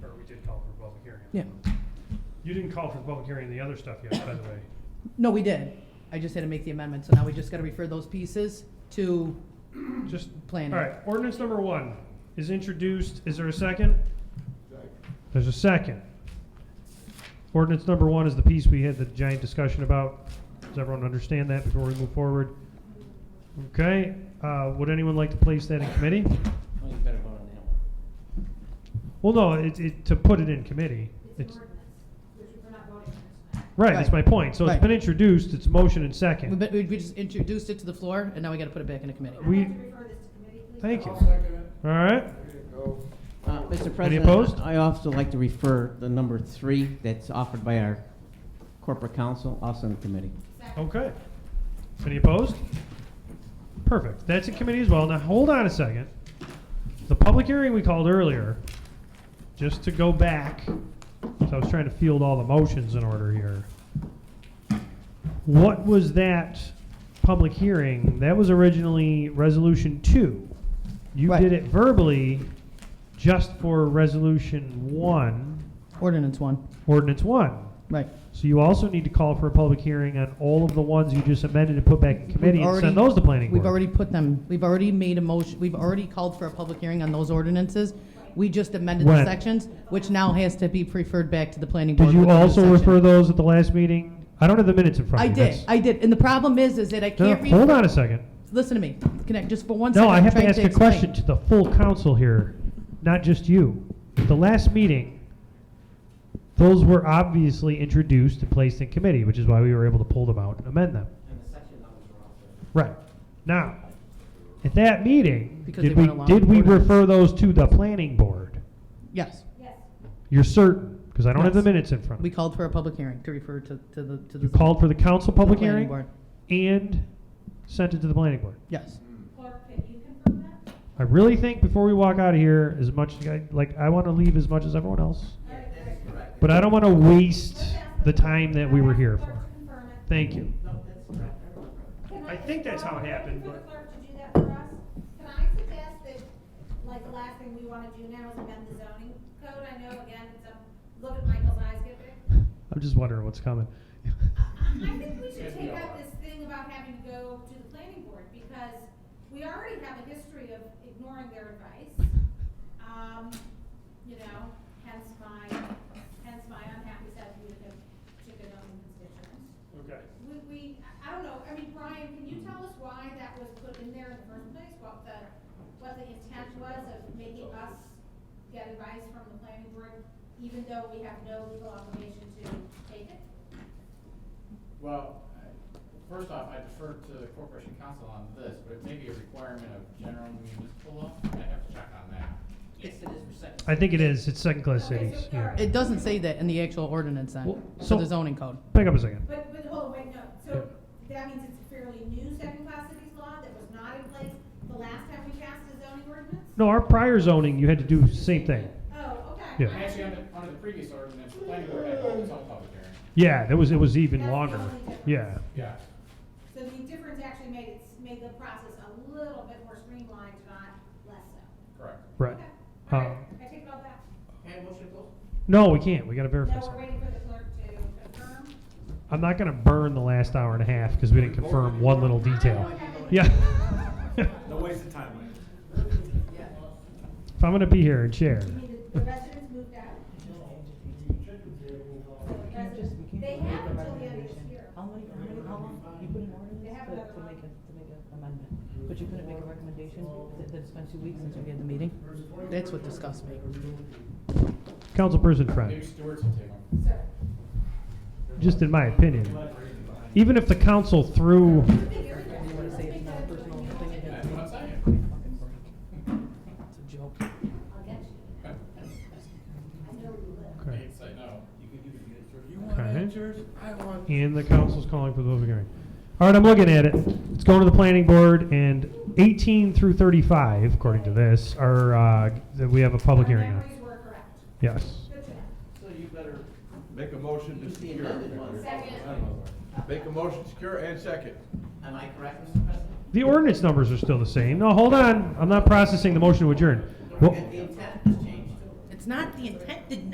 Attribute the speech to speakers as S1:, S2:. S1: Yeah.
S2: You didn't call for the public hearing, on the other stuff yet, by the way.
S1: No, we did. I just had to make the amendment, so now we just gotta refer those pieces to
S2: Just, all
S1: planning.
S2: right, ordinance number one is introduced, is there a second? There's a second. Ordinance number one is the piece we had the giant discussion about. Does everyone understand that before we move forward? Okay, uh, would anyone like to place that in committee?
S3: Well, you better vote on that one.
S2: Well, no, it, it, to put it in committee. It's,
S4: It's an ordinance, which we're not voting on tonight.
S2: right, that's my
S1: Right.
S2: point. So it's
S1: Right.
S2: been introduced, it's motion and
S1: We,
S2: second.
S1: but we we just introduced it to the floor, and now we gotta put it back in the committee.
S4: I'd
S2: We-
S4: like to refer this to committee, please.
S2: Thank you.
S5: I'll second it.
S2: All right?
S5: Way to go.
S3: Uh, Mr.
S2: opposed?
S3: President, I also like to refer the number three that's offered by our corporate counsel, also in committee.
S4: Second.
S2: Okay. Any opposed? Perfect. That's in committee as well. Now, hold on a second. The public hearing we called earlier, just to go back, so I was trying to field all the motions in order here. What was that public hearing? That was originally Resolution 2. You
S1: Right.
S2: did it verbally just for Resolution 1,
S1: Ordinance one,
S2: Ordinance 1.
S1: right.
S2: So you also need to call for a public hearing on all of the ones you just amended and put back in committee
S1: We've
S2: and
S1: already-
S2: send those to planning board.
S1: We've already put them, we've already made a motion, we've already called for a public hearing on those ordinances. We just amended the
S2: When?
S1: sections, which now has to be referred back to the planning board.
S2: Did you
S1: with a new
S2: also
S1: section.
S2: refer those at the last meeting? I don't have the minutes in front
S1: I
S2: of me.
S1: did,
S2: That's-
S1: I did, and the problem is, is that I
S2: No,
S1: can't
S2: no,
S1: read.
S2: hold on a second.
S1: Listen to me, connect, just for one second.
S2: No, I
S1: I'm
S2: have to
S1: trying
S2: ask a
S1: explain.
S2: question to the full council here, not just you. At the last meeting, those were obviously introduced and placed in committee, which is why we were able to pull them out and amend them.
S3: And the section numbers are also.
S2: Right. Now, at that meeting,
S1: Because
S2: did
S1: they
S2: we,
S1: weren't allowed
S2: did we
S1: ordinance.
S2: refer those to the planning board?
S1: Yes,
S4: Yes,
S2: You're certain, because I don't have the
S1: Yes.
S2: minutes in front
S1: we
S2: of me.
S1: called for a public hearing to refer to, to the, to the.
S2: You called for the council public
S1: planning
S2: hearing
S1: board.
S2: and sent it to the planning board.
S1: Yes,
S4: clerk, can you confirm that?
S2: I really think before we walk out of here, as much, I- like, I want to leave as much as everyone else,
S4: All right, great.
S2: but I don't want to waste
S4: Let's ask
S2: the time that we were here
S4: Clerk
S2: for.
S4: to confirm it.
S2: Thank you.
S3: No, that's correct. I remember.
S2: I
S4: Can
S2: think that's how it
S4: Can I
S2: happened,
S4: wait
S2: but-
S4: For the clerk to do that for us, can I suggest that, like, the last thing we wanna do now is amend the zoning code? I know, again, it's a, look at Michael's eyes get big.
S2: I'm just wondering what's coming.
S4: I I think we should take out this thing about having to go to the planning board, because we already have a history of ignoring their advice. Um, you know, hence my, hence my unhappy sad view of chicken on constituents.
S2: Okay.
S4: We, we, I- I don't know, I mean, Brian, can you tell us why that was put in there in the first place? What the, what the intent was of making us get advice from the planning board, even though we have no legal obligation to take it?
S6: Well, I- first off, I defer to the corporation council on this, but it may be a requirement of general municipal law. I have to check on that.
S3: Yes, it is for section.
S2: I think it is, it's second-class
S4: Okay,
S2: cities,
S4: so-
S2: yeah.
S1: it doesn't say that in the actual ordinance then,
S2: Well,
S1: for
S2: so-
S1: the zoning code.
S2: Back up a second.
S4: But, but hold, on, wait, no, so that means it's a fairly new second-class cities law that was not in place the last time we passed a zoning ordinance?
S2: No, our prior zoning, you had to do the same thing.
S4: Oh, okay.
S2: Yeah.
S6: And Actually, under, under the previous ordinance, the planning board had to hold its own public hearing.
S2: Yeah, that was, it was
S4: That's
S2: even
S4: the
S2: longer.
S4: only difference.
S2: Yeah.
S6: Yeah.
S4: So the difference actually made it, made the process a little bit more streamlined, not less so.
S6: Correct.
S2: Right.
S4: Okay.
S2: Uh,
S4: All right, I take all that.
S3: And motion to close?
S2: No, we can't, we gotta verify
S4: Now we're
S2: something.
S4: waiting for the clerk to confirm.
S2: I'm not gonna burn the last hour and a half because we didn't confirm one little detail. Yeah.
S7: No waste of time, Mike.
S2: if I'm gonna be here and chair,
S4: You mean the the residents moved out? Residents- They have until the end of this year.
S8: How many, how many, how long, you put an ordinance
S4: They have
S8: to,
S4: another
S8: to
S4: one.
S8: make a, to make an amendment, but you couldn't make a recommendation, that, that it's been two weeks since we had the meeting?
S1: That's what disgusts me.
S2: councilperson
S6: Maybe
S2: friend,
S6: Stewart's will take them.
S4: Sir.
S2: just in my opinion, even if the council threw,
S4: I think you're-
S8: You wanna say it's not a personal thing
S6: That's
S8: against
S6: what
S8: me?
S6: I'm saying.
S8: Fucking break. It's a joke.
S4: I'll get you. I know you will.
S2: okay,
S6: They'd say no.
S7: You want
S2: Okay.
S7: that church? I want.
S2: and the council's calling for the public hearing. All right, I'm looking at it. It's going to the planning board, and 18 through 35, according to this, are uh, that we have a public
S4: Our
S2: hearing on.
S4: Memories were correct.
S2: Yes.
S4: Good to know.
S3: So you better,
S7: Make a motion to secure.
S3: Second.
S7: Make a motion, secure and second.
S3: am I correct, Mr. President?
S2: The ordinance numbers are still the same. No, hold on. I'm not processing the motion to adjourn. Well,
S3: The intent has changed too.
S1: It's not the